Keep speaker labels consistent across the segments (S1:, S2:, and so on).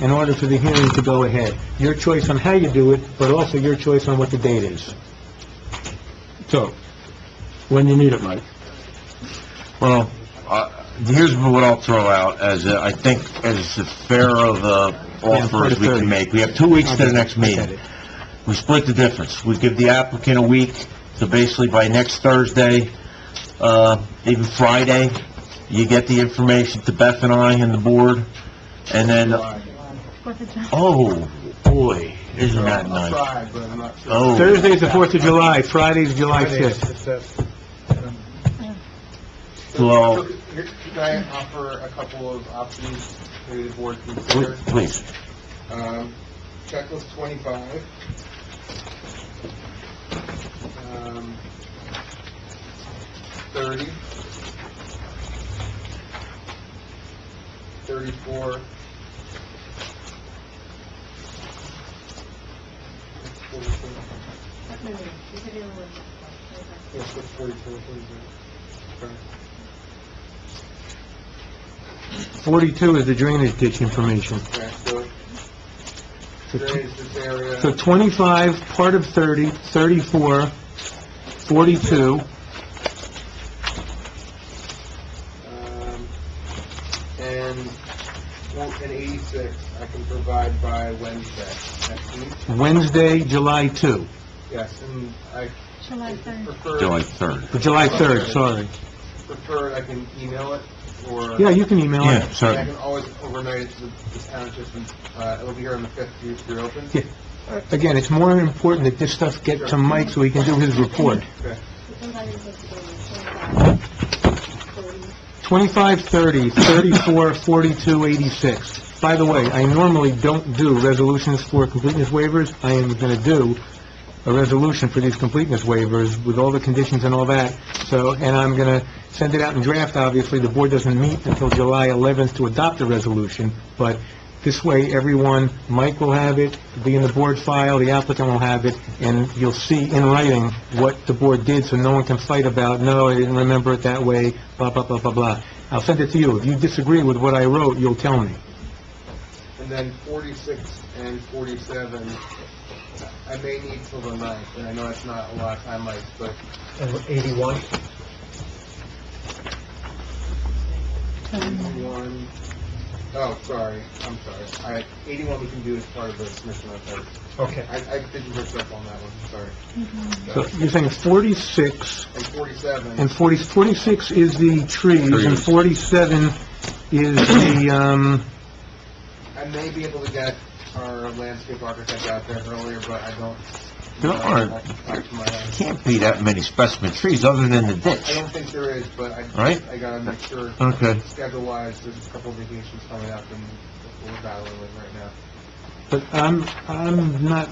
S1: in order for the hearing to go ahead. Your choice on how you do it, but also your choice on what the date is.
S2: So, when you need it, Mike.
S3: Well, uh, here's what I'll throw out as, a- I think, as a fair of a offer as we can make. We have two weeks to the next meeting. We split the difference. We give the applicant a week, so basically by next Thursday, uh, even Friday, you get the information to Beth and I and the board, and uh, then, oh, boy, isn't that nice? Oh,
S1: Thursday's the 4th of July, Friday's July 5th.
S3: well,
S4: Could I offer a couple of options for the board
S3: pl-
S4: to consider?
S3: please,
S4: Um, Checklist 25. Um, 30. 34. Yes, that's 44, 45.
S1: 42 is the drainage ditch information.
S4: Okay, so
S1: So tw-
S4: today's this area.
S1: So 25, part of 30, 34, 42,
S4: Um, and, well, and eighty-six, I can provide by Wednesday next week,
S1: Wednesday, July 2,
S4: yes, and I
S5: July
S4: if you
S5: 3rd.
S3: July
S4: prefer,
S3: 3rd.
S1: or July 3rd, sorry.
S4: prefer, I can email it, or...
S1: Yeah, you can email
S3: Yeah,
S1: it.
S4: And I
S3: so,
S4: can always overnight it to the the town, just, uh, it'll be here on the fifth, if you're- if you're open.
S1: Yeah. Again, it's more important that this stuff get to Mike so he can do his report.
S4: Okay.
S1: 25, 30, 34, 42, 86. By the way, I normally don't do resolutions for completeness waivers. I am going to do a resolution for these completeness waivers with all the conditions and all that. So, and I'm going to send it out in draft, obviously. The board doesn't meet until July 11th to adopt the resolution, but this way, everyone, Mike will have it, it'll be in the board file, the applicant will have it, and you'll see in writing what the board did, so no one can fight about, no, I didn't remember it that way, blah, blah, blah, blah, blah. I'll send it to you. If you disagree with what I wrote, you'll tell me.
S4: And then forty-six and forty-seven, I may need till the ninth, and I know that's not a lot of time, Mike, but
S1: 81?
S4: Eighty-one, oh, sorry, I'm sorry. All right, eighty-one we can do as part of the submission letter.
S1: Okay.
S4: I, I didn't mix up on that one, sorry.
S1: So you're saying 46
S4: And forty-seven,
S1: And 40, 46 is the trees, and
S3: Trees.
S1: 47 is the, um,
S4: I may be able to get our landscape architect out there earlier, but I don't.
S3: There aren't.
S4: I- I- to my-
S3: can't be that many specimen trees other than the
S4: I
S3: ditch.
S4: don't think there is, but I,
S3: Right?
S4: I gotta make sure,
S3: Okay.
S4: schedule-wise, there's a couple of vacations coming up and we're battling with right now.
S1: but I'm, I'm not...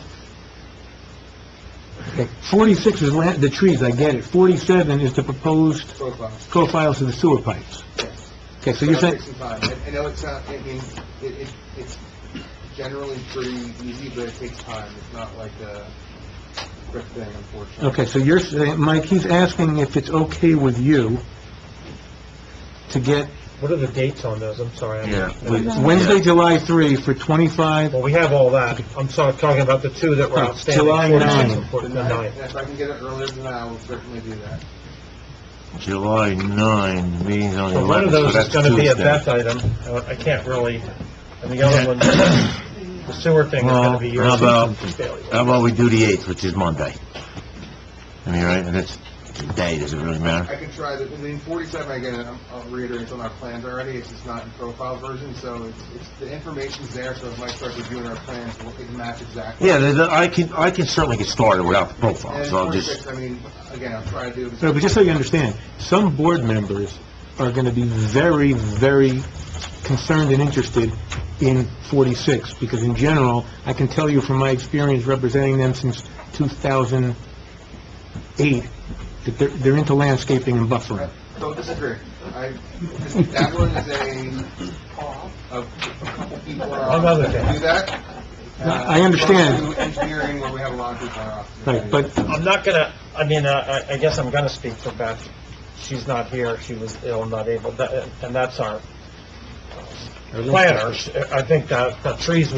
S1: Okay, 46 is la, the trees, I get it. 47 is the proposed
S4: Profiles.
S1: profiles of the sewer pipes.
S4: yes.
S1: Okay, so you're
S4: That'll
S1: saying,
S4: take some time. I I know it's not, I mean, it, it, it's generally pretty easy, but it takes time. It's not like a quick thing, unfortunately.
S1: okay, so you're saying, Mike, he's asking if it's okay with you to get
S6: What are the dates on those? I'm sorry. I'm-
S3: Yeah.
S1: Wednesday, July 3 for 25,
S6: Well, we have all that. I'm sorry, talking about the two that were
S1: Oh,
S6: outstanding.
S1: July
S6: 46
S1: nine.
S6: and 49.
S4: The ninth. And if I can get it earlier than that, I will certainly do that.
S3: July 9, meeting's on the
S6: So one of
S3: 11th, so
S6: those is
S3: that's
S6: going to be a
S3: Tuesday.
S6: Beth item. Uh, I can't really, and the other one, the sewer thing is going to be
S3: Well,
S6: yours.
S3: how How about we do the 8th, which is Monday? I mean, right, and it's, the day, does it really matter?
S4: I can try the, I mean, 47, again, I'm- I'll reiterate, it's on our plans already, it's just not in profile version, so it's, it's, the information's there, so if Mike starts reviewing our plans, we'll- it can match exactly.
S3: Yeah, the- the- I can, I can certainly get started without the profile,
S4: And
S3: so I'll just,
S4: 46, I mean, again, I'll try to do.
S1: No, but just so you understand, some board members are going to be very, very concerned and interested in 46, because in general, I can tell you from my experience representing them since 2008, that they're, they're into landscaping and buffering.
S4: Don't disagree. I, that one is a, of a couple people are
S6: One other
S4: office
S6: thing.
S4: that do that.
S1: No, I understand.
S4: Uh, Engineering, where we have a lot of people in our office.
S1: Right, but,
S6: I'm not going to, I mean, uh, I I guess I'm going to speak for Beth. She's not here, she was ill, not able, That- and that's our, planters, I think that the trees